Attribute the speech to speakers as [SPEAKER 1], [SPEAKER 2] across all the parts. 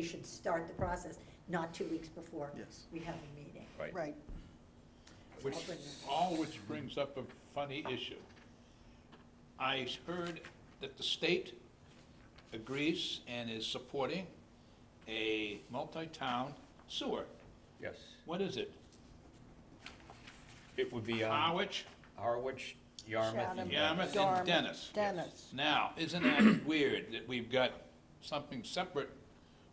[SPEAKER 1] we should start the process, not two weeks before
[SPEAKER 2] Yes.
[SPEAKER 1] we have a meeting.
[SPEAKER 3] Right.
[SPEAKER 4] Right,
[SPEAKER 5] Which,
[SPEAKER 1] I'll bring that.
[SPEAKER 5] all which brings up a funny issue. I heard that the state agrees and is supporting a multi-town sewer.
[SPEAKER 3] Yes.
[SPEAKER 5] What is it?
[SPEAKER 3] It would be um,
[SPEAKER 5] Harwich?
[SPEAKER 3] Harwich, Yarmouth, and
[SPEAKER 4] Chatham.
[SPEAKER 5] Yarmouth
[SPEAKER 4] Dartmouth,
[SPEAKER 5] and Dennis.
[SPEAKER 4] Dennis.
[SPEAKER 5] Now, isn't that weird that we've got something separate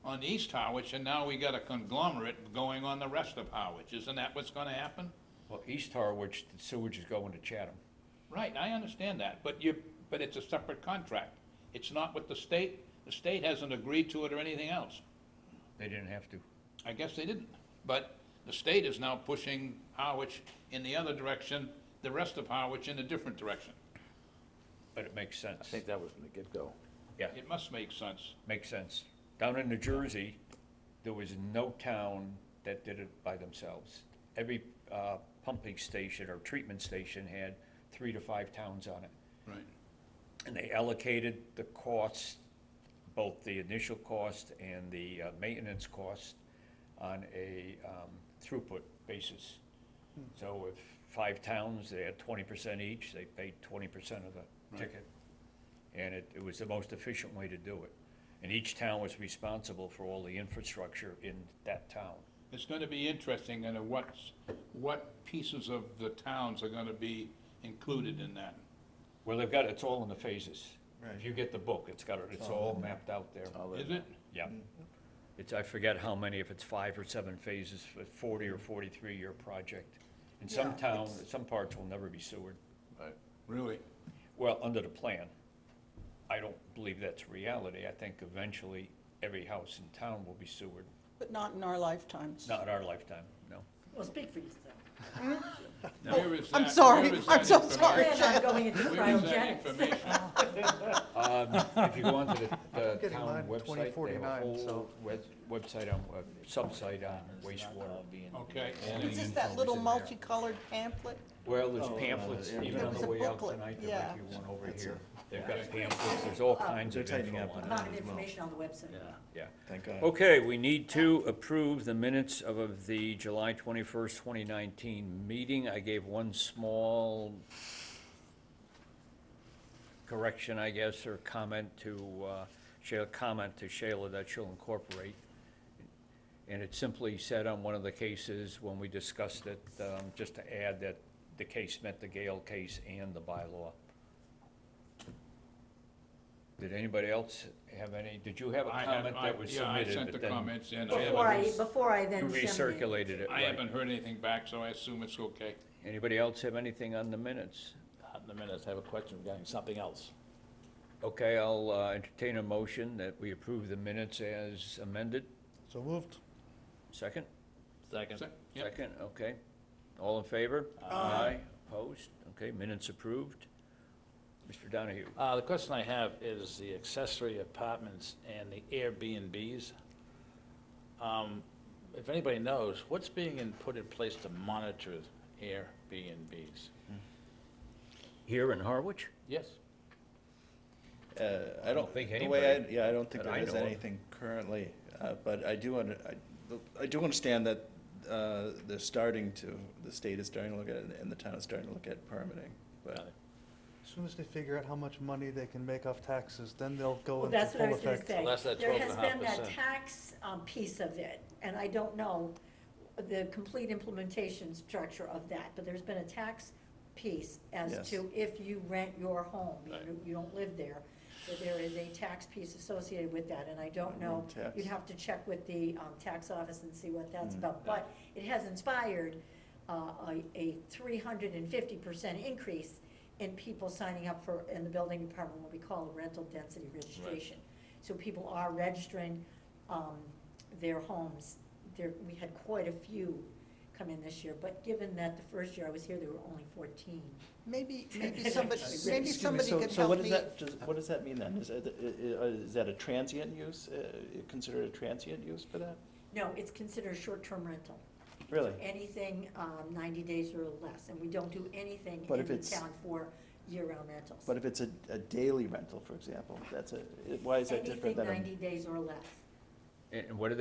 [SPEAKER 5] on East Harwich and now we got a conglomerate going on the rest of Harwich? Isn't that what's gonna happen?
[SPEAKER 3] well, East Harwich, the sewage is going to Chatham.
[SPEAKER 5] Right, I understand that, but you, but it's a separate contract. It's not with the state, the state hasn't agreed to it or anything else.
[SPEAKER 3] They didn't have to.
[SPEAKER 5] I guess they didn't, but the state is now pushing Harwich in the other direction, the rest of Harwich in a different direction.
[SPEAKER 3] But it makes sense.
[SPEAKER 6] I think that was from the get-go.
[SPEAKER 3] Yeah,
[SPEAKER 5] It must make sense.
[SPEAKER 3] makes sense. Down in New Jersey, there was no town that did it by themselves. Every uh, pumping station or treatment station had three to five towns on it.
[SPEAKER 5] Right.
[SPEAKER 3] And they allocated the costs, both the initial cost and the uh, maintenance cost on a um, throughput basis. Hmm. So if five towns, they had twenty percent each, they paid twenty percent of the ticket. And it, it was the most efficient way to do it. And each town was responsible for all the infrastructure in that town.
[SPEAKER 5] It's gonna be interesting, and what's, what pieces of the towns are gonna be included in that?
[SPEAKER 3] Well, they've got, it's all in the phases.
[SPEAKER 2] Right.
[SPEAKER 3] If you get the book, it's got, it. it's all mapped out there.
[SPEAKER 5] Is it?
[SPEAKER 3] Yeah.
[SPEAKER 2] Mm.
[SPEAKER 3] It's, I forget how many, if it's five or seven phases, a forty or forty-three year project. In some
[SPEAKER 1] Yeah,
[SPEAKER 3] town, some parts will never be sewered.
[SPEAKER 5] Really?
[SPEAKER 3] Well, under the plan, I don't believe that's reality. I think eventually every house in town will be sewered.
[SPEAKER 4] but not in our lifetimes.
[SPEAKER 3] Not in our lifetime, no.
[SPEAKER 1] Well, speak for yourself.
[SPEAKER 5] Where is
[SPEAKER 4] Oh, I'm
[SPEAKER 5] that-
[SPEAKER 4] sorry.
[SPEAKER 5] where is
[SPEAKER 4] I'm
[SPEAKER 5] that
[SPEAKER 4] so
[SPEAKER 5] information?
[SPEAKER 4] sorry.
[SPEAKER 1] Plan on going into
[SPEAKER 5] Where is that
[SPEAKER 1] cryogenics.
[SPEAKER 5] information?
[SPEAKER 3] Um, If you go onto the, the
[SPEAKER 2] getting mine
[SPEAKER 3] town
[SPEAKER 2] in
[SPEAKER 3] website, they have a
[SPEAKER 2] 2049,
[SPEAKER 3] whole
[SPEAKER 2] so-
[SPEAKER 3] web, website on, uh, sub-site on wastewater.
[SPEAKER 5] Okay.
[SPEAKER 3] All the
[SPEAKER 4] It's just
[SPEAKER 3] info
[SPEAKER 4] that
[SPEAKER 3] is
[SPEAKER 4] little
[SPEAKER 3] in there.
[SPEAKER 4] multicolored pamphlet.
[SPEAKER 3] Well, there's
[SPEAKER 2] Oh, uh,
[SPEAKER 3] pamphlets,
[SPEAKER 2] yeah.
[SPEAKER 3] even
[SPEAKER 2] There
[SPEAKER 3] on
[SPEAKER 2] was
[SPEAKER 3] the
[SPEAKER 4] a
[SPEAKER 3] way out
[SPEAKER 4] booklet,
[SPEAKER 3] tonight, there
[SPEAKER 4] yeah.
[SPEAKER 3] might be one over
[SPEAKER 2] That's
[SPEAKER 3] here. They've
[SPEAKER 1] yeah.
[SPEAKER 3] got pamphlets, there's all kinds
[SPEAKER 2] Oh, They're
[SPEAKER 3] of
[SPEAKER 2] tightening
[SPEAKER 3] info
[SPEAKER 2] up
[SPEAKER 3] on it,
[SPEAKER 1] Amount of information on the website.
[SPEAKER 3] yeah.
[SPEAKER 2] Thank God.
[SPEAKER 3] Okay, we need to approve the minutes of- of the July twenty-first, twenty nineteen meeting. I gave one small correction, I guess, or comment to, uh, Shayla, comment to Shayla that she'll incorporate. And it simply said on one of the cases, when we discussed it, um, just to add that the case meant the Gale case and the bylaw. Did anybody else have any, did you have a
[SPEAKER 5] I have-
[SPEAKER 3] comment
[SPEAKER 5] I-
[SPEAKER 3] that was
[SPEAKER 5] Yeah, I
[SPEAKER 3] submitted?
[SPEAKER 5] sent the
[SPEAKER 3] but then-
[SPEAKER 5] comments in. I
[SPEAKER 1] Before I,
[SPEAKER 5] haven't-
[SPEAKER 1] before I
[SPEAKER 3] You
[SPEAKER 1] then. send it.
[SPEAKER 3] recirculated it,
[SPEAKER 5] I
[SPEAKER 3] right.
[SPEAKER 5] haven't heard anything back, so I assume it's okay.
[SPEAKER 3] Anybody else have anything on the minutes?
[SPEAKER 6] Not in the minutes, I have a question regarding something else.
[SPEAKER 3] Okay, I'll uh, entertain a motion that we approve the minutes as amended.
[SPEAKER 2] So moved.
[SPEAKER 3] Second?
[SPEAKER 6] Second.
[SPEAKER 5] Se- yep.
[SPEAKER 3] Second, okay. All in favor? Aye. Opposed? Okay, minutes approved. Mr. Donahue?
[SPEAKER 6] Uh, the question I have is the accessory apartments and the Airbnbs. Um, if anybody knows, what's being in- put in place to monitor Airbnbs?
[SPEAKER 3] Here in Harwich?
[SPEAKER 6] Yes,
[SPEAKER 2] Uh, I don't
[SPEAKER 3] think
[SPEAKER 2] think the way I,
[SPEAKER 3] anybody
[SPEAKER 2] yeah, I don't think
[SPEAKER 3] that
[SPEAKER 2] there
[SPEAKER 3] I
[SPEAKER 2] is
[SPEAKER 3] know of.
[SPEAKER 2] anything currently, uh, but I do under, I, I do understand that, uh, they're starting to, the state is starting to look at it and the town is starting to look at permitting, but.
[SPEAKER 6] Got it.
[SPEAKER 7] As soon as they figure out how much money they can make off taxes, then they'll go
[SPEAKER 1] Well,
[SPEAKER 7] into
[SPEAKER 1] that's what I
[SPEAKER 7] full
[SPEAKER 1] was gonna
[SPEAKER 7] effect.
[SPEAKER 1] say.
[SPEAKER 6] Well, that's that
[SPEAKER 1] There has been that
[SPEAKER 6] 12.5%.
[SPEAKER 1] tax um, piece of it, and I don't know the complete implementation structure of that, but there's been a tax piece as
[SPEAKER 2] Yes.
[SPEAKER 1] to if you rent your home, you
[SPEAKER 6] Right.
[SPEAKER 1] don't- you don't live there, that there is a tax piece associated with that, and I don't know.
[SPEAKER 2] Room tax.
[SPEAKER 1] You'd have to check with the um, tax office and see what that's
[SPEAKER 2] Mm.
[SPEAKER 1] about, but it has inspired uh, a, a three hundred and fifty percent increase in people signing up for, in the building department, what we call a rental density registration. So people are registering, um, their homes, there, we had quite a few come in this year, but given that the first year I was here, there were only fourteen.
[SPEAKER 4] Maybe, maybe somebody,
[SPEAKER 1] Excuse me,
[SPEAKER 4] maybe somebody could
[SPEAKER 2] So what
[SPEAKER 4] help
[SPEAKER 2] does
[SPEAKER 4] me.
[SPEAKER 2] that, what does that mean then? uh, Is, that a transient use, uh, considered a transient use for that?
[SPEAKER 1] No, it's considered a short-term rental.
[SPEAKER 2] Really?
[SPEAKER 1] Anything, um, ninety days or less, and we don't do anything
[SPEAKER 2] But
[SPEAKER 1] in
[SPEAKER 2] if
[SPEAKER 1] the
[SPEAKER 2] it's-
[SPEAKER 1] town for year-round rentals.
[SPEAKER 2] But if it's a, a daily rental, for example, that's a, why is that different than? a-
[SPEAKER 1] Anything ninety days or less.
[SPEAKER 3] And and what do they